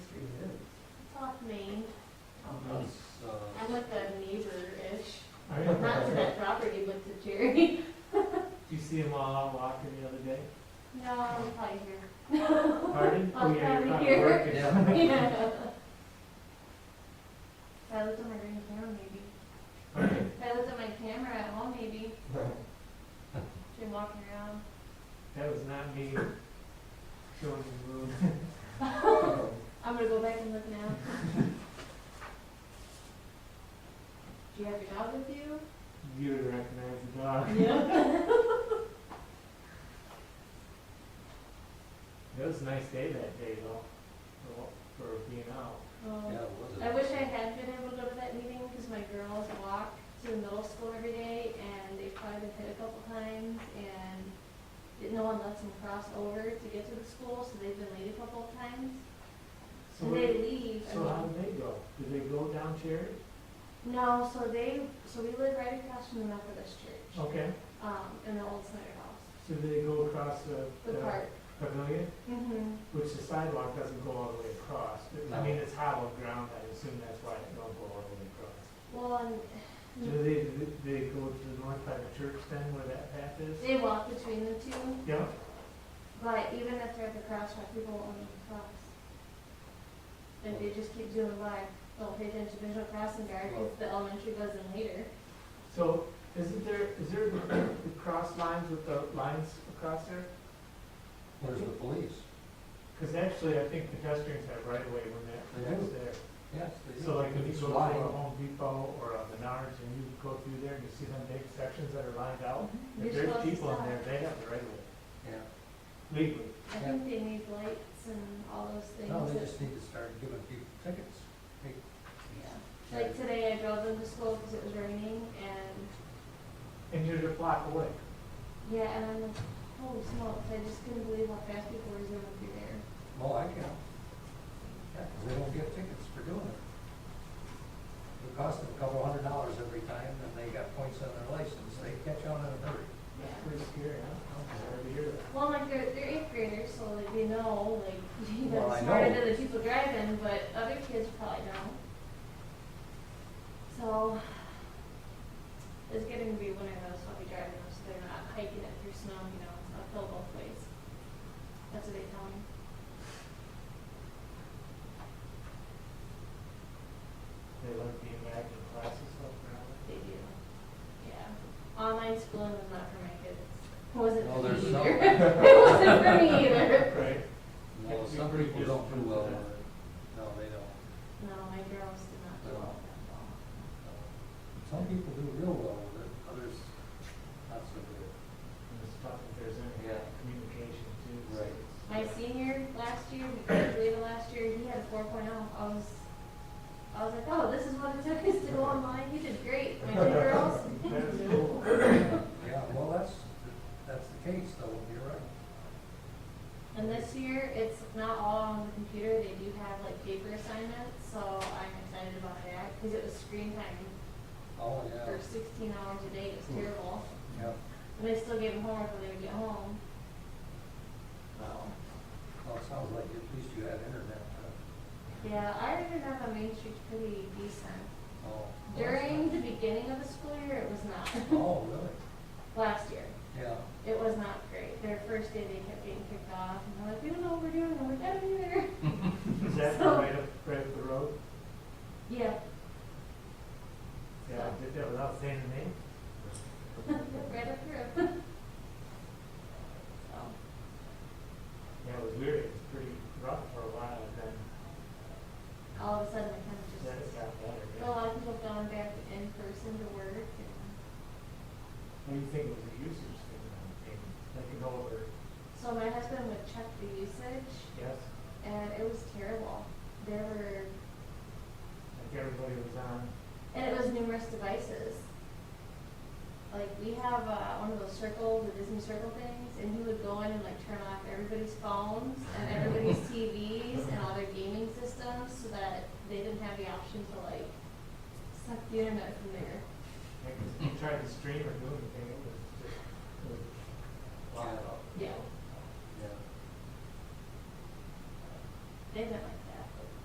uh, Oh, Oh, If I looked at my green camera, maybe. If I looked at my camera at home, maybe. Been walking around. That was not me showing the room. I'm gonna go back and look now. Do you have your dog with you? You would recognize the dog. Yeah. It was a nice day that day though, for, for being out. Oh. Yeah, it was. uh, I wish I had been able to go to that meeting because my girls walk to middle school every day and they've probably been hit a couple times and it- no one lets them cross over to get to the school, so they've been late a couple of times. So, And they where- leave. I so how mean- did they go? Did they go down Cherry? No, so they, so we live right across from the Methodist church, Okay, um, in the old Snyder House, so did they go across the, the the park. pavilion? Mm-hmm. Which the sidewalk doesn't go all the way across. I No. mean, it's hollow ground, I assume that's why it don't go all the way across. Well, and Do they, do they go to the north side of church then where that path is? they walk between the two, Yeah, but even if they're at the crosswalk, people won't let them cross. If they just keep doing life, they'll pay attention to visual crossing guard, because the elementary goes in later. so isn't there, is there the the cross lines with the lines across there? Where's the police? Because actually, I think pedestrians have right away when that, They that's do. there. Yes. they So do. like if you It's go to lying. a Home Depot or a Menards and you go through there and you see them big sections that are lined out, if Mm-hmm. You're there's supposed to people in stop. there, they have the right of Yeah. way legally. I think they need lights and all those things. No, they that- just need to start giving people tickets. Hey, yeah. Like today, I drove them to school because it was raining, and And you're a block away. Yeah, and I'm like, holy smokes, I just couldn't believe how fast people were zooming through there. Well, I can. Yeah, 'cause they don't get tickets for doing it. It costs them a couple hundred dollars every time, and they got points on their license. They catch on in a hurry. That's pretty scary, huh? Sorry to hear that. Well, like, they're, they're eighth graders, so like, they know, like, you know, Well, I smarter know. than the people driving, but other kids probably don't. So, it's getting to be winter though, so I'll be driving them, so they're not hiking it through snow, you know, uphill both ways. That's what they tell me. They like being back in classes up They do. Yeah. Online schooling was not for my kids. It wasn't for No, me there's either. some- It wasn't for me either. around. Right. Well, some people don't do well with it. No, they don't. No, my girls did not do well at all. No. Some people do real well with it, others not so good. And it's tough if there's any Yeah. communication too. so Right. it's- My senior last year, we graduated last year, he had a four oh. I was, I was like, oh, this is what it took us to go online, you did great, my two girls. That's cool. Yeah, well, that's, that's the case, though, you're right. And this year, it's not all on the computer, they do have like paper assignments, so I'm excited about that, because it was screen time Oh, for yeah, sixteen hours a day, it was terrible. yeah. And they still gave them homework when they would get home. So. Well, it sounds like at least you had internet. uh, Yeah, I ended up on Main Street's pretty decent. Oh. During the beginning of the school year, it was not. Oh, really? Last year, Yeah. it was not great. Their first day, they kept getting kicked off, and they're like, we don't know what we're doing, and we're out of here. Is that the So- right up, right up the road? Yeah, Yeah, I did that without saying the name. right up through. So, Yeah, it was weird, it was pretty rough for a while, and then, all of a sudden, it kind of then it just, got better. a yeah. lot of people going back in person to work, and What do you think was the usage thing, I mean, like an older, so my husband would check the usage, yes, and it was terrible. There were, like everybody was on, And it was numerous devices. Like we have uh, one of those circles, the Disney circle things, and he would go in and like turn off everybody's phones and everybody's TVs and all their gaming systems so that they didn't have the option to like suck the internet from there. like, if you tried to stream or do anything, it was just, it was locked up. Yeah.